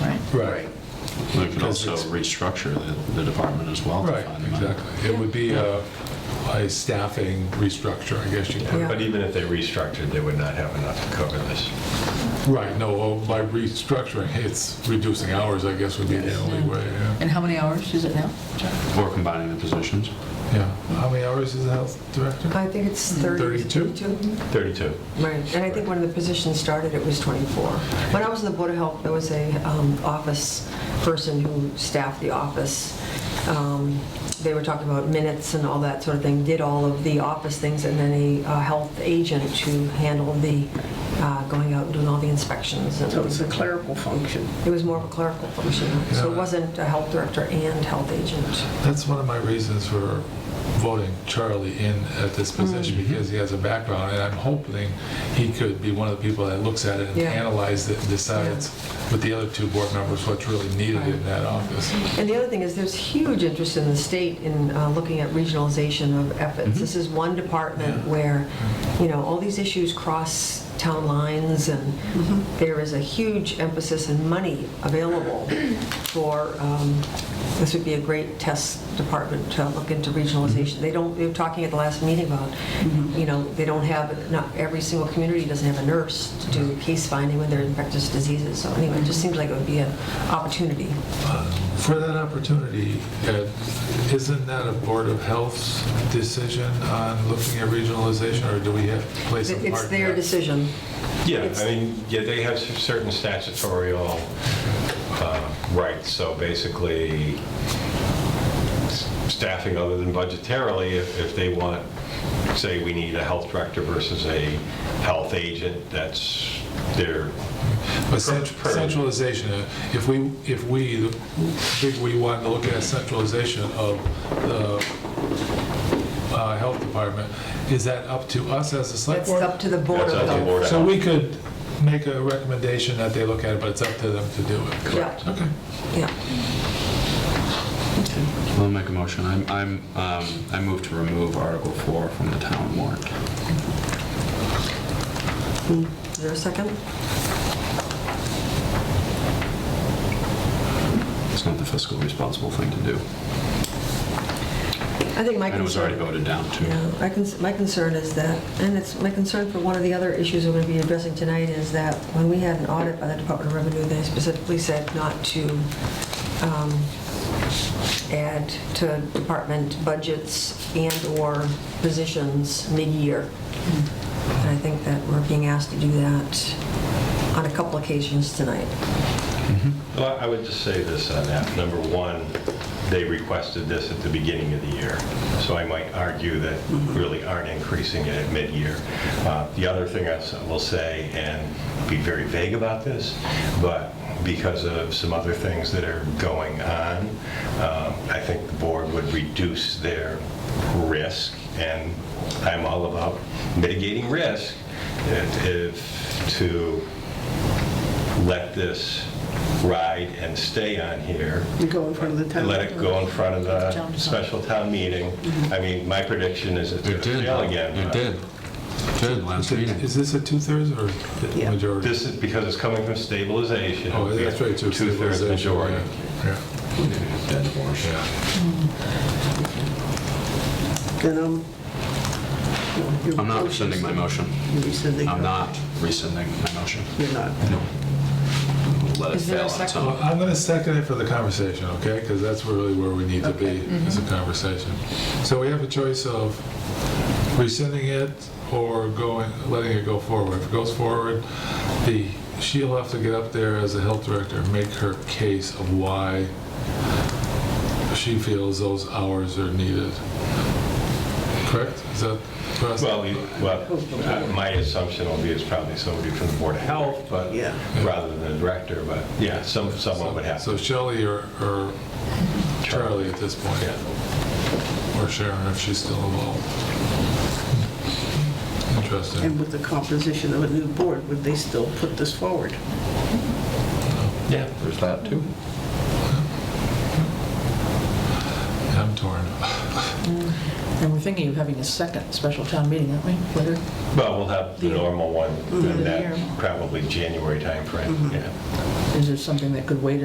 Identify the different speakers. Speaker 1: Right,
Speaker 2: We could
Speaker 1: Because
Speaker 2: also
Speaker 1: it's-
Speaker 2: restructure the, the department as well. to
Speaker 1: right,
Speaker 2: find money.
Speaker 1: exactly. It would be a a staffing restructure, I guess you could.
Speaker 3: But even if they restructured, they would not have enough to cover this.
Speaker 1: Right, no, well, by restructuring, it's reducing hours, I guess would be the only way, yeah.
Speaker 4: And how many hours is it now?
Speaker 2: Or combining the positions.
Speaker 1: yeah. How many hours is the health director?
Speaker 5: I think it's 30.
Speaker 1: 32?
Speaker 3: 32.
Speaker 5: Right, and I think when the position started, it was 24. When I was in the Board of Health, there was a um, office person who staffed the office. Um, They were talking about minutes and all that sort of thing, did all of the office things, and then a uh, health agent who handled the, uh, going out and doing all the inspections. and-
Speaker 6: So it's a clerical function.
Speaker 5: It was more of a clerical function, so it
Speaker 1: Yeah.
Speaker 5: wasn't a health director and health agent.
Speaker 1: That's one of my reasons for voting Charlie in at this position, because he has a background, and I'm hoping he could be one of the people that looks at it and
Speaker 5: Yeah.
Speaker 1: analyzes it and decides with the other two board members what's really needed in that office.
Speaker 5: And the other thing is, there's huge interest in the state in uh, looking at regionalization of efforts. This is one department where, you know, all these issues cross town lines, and there is a huge emphasis and money available for, um, this would be a great test department to look into regionalization. They don't, they were talking at the last meeting about, you know, they don't have, not every single community doesn't have a nurse to do case finding when they're infectious diseases. So anyway, it just seems like it would be an opportunity.
Speaker 1: For that opportunity, Ed, isn't that a Board of Health's decision on looking at regionalization, or do we have to play some part?
Speaker 5: It's
Speaker 1: in
Speaker 5: their
Speaker 1: that?
Speaker 5: decision.
Speaker 3: Yeah, I mean, yeah, they have certain statutorial uh, rights, so basically s- staffing other than budgetarily, if if they want, say, we need a health director versus a health agent, that's their,
Speaker 1: But cent- Centralization, uh, if we, if we, the big we want to look at centralization of the uh, health department, is that up to us as a select
Speaker 5: That's
Speaker 1: board?
Speaker 5: up to the Board
Speaker 3: that's
Speaker 5: of
Speaker 3: up to the
Speaker 5: Health.
Speaker 3: board. of
Speaker 1: So we
Speaker 3: Health.
Speaker 1: could make a recommendation that they look at it, but it's up to them to do it?
Speaker 5: Correct.
Speaker 1: Okay.
Speaker 5: Yeah.
Speaker 2: I'll make a motion. I'm, I'm, um, I move to remove Article 4 from the town warrant.
Speaker 5: Mm. Is there a second?
Speaker 2: It's not the fiscal responsible thing to do.
Speaker 5: I think my
Speaker 2: And it was already
Speaker 5: concern,
Speaker 2: voted down too.
Speaker 5: yeah, I cons- my concern is that, and it's, my concern for one of the other issues we're going to be addressing tonight is that when we had an audit by the Department of Revenue, they specifically said not to um, add to department budgets and/or positions mid-year.
Speaker 1: Hmm.
Speaker 5: And I think that we're being asked to do that on a couple occasions tonight.
Speaker 3: Well, I would just say this on that. Number one, they requested this at the beginning of the year, so I might argue that really aren't increasing it at mid-year. Uh, The other thing I s- will say, and be very vague about this, but because of some other things that are going on, um, I think the board would reduce their risk, and I'm all about mitigating risk, that if, to let this ride and stay on here.
Speaker 6: You go in front of the town.
Speaker 3: Let it go in front of the special town meting.
Speaker 6: Mm-hmm.
Speaker 3: I mean, my prediction is it's going
Speaker 2: It
Speaker 3: to
Speaker 2: did.
Speaker 3: fail again.
Speaker 2: It
Speaker 3: but
Speaker 2: did. Did last meeting.
Speaker 1: Is this a two-thirds or the
Speaker 6: Yeah.
Speaker 1: majority?
Speaker 3: This is because it's coming from stabilization.
Speaker 1: Oh, that's right, two
Speaker 3: Two-thirds majority.
Speaker 6: Then I'm.
Speaker 2: I'm not rescinding my motion.
Speaker 6: You're rescinding.
Speaker 2: I'm not rescinding my motion.
Speaker 6: You're not.
Speaker 2: Let it
Speaker 4: Is there a
Speaker 2: fail on its
Speaker 1: Well,
Speaker 2: own.
Speaker 1: Uh, I'm going to second it for the conversation, okay? Because that's really where we need to be, is a conversation. So we have a choice of rescinding it or going, letting it go forward. If it goes forward, the, she'll have to get up there as a health director, and make her case of why she feels those hours are needed. Correct? Is that the process?
Speaker 3: Well, you- well, uh, my assumption will be it's probably somebody from the Board of Health, but
Speaker 6: Yeah.
Speaker 3: rather than the director, but yeah, some, someone would have
Speaker 1: So
Speaker 3: to.
Speaker 1: Shelley or or Charlie at this point?
Speaker 3: Yeah.
Speaker 1: or Sharon if she's still involved.
Speaker 6: And
Speaker 1: Interesting.
Speaker 6: with the composition of a new board, would they still put this forward?
Speaker 2: Yeah, there's that too.
Speaker 1: I'm torn.
Speaker 7: And we're thinking of having a second special town meeting, aren't we? Whether-
Speaker 3: Well, we'll have the normal one,
Speaker 7: Mhm.
Speaker 6: Mm-hmm.
Speaker 3: that probably January timeframe, yeah.
Speaker 7: Is there something that could wait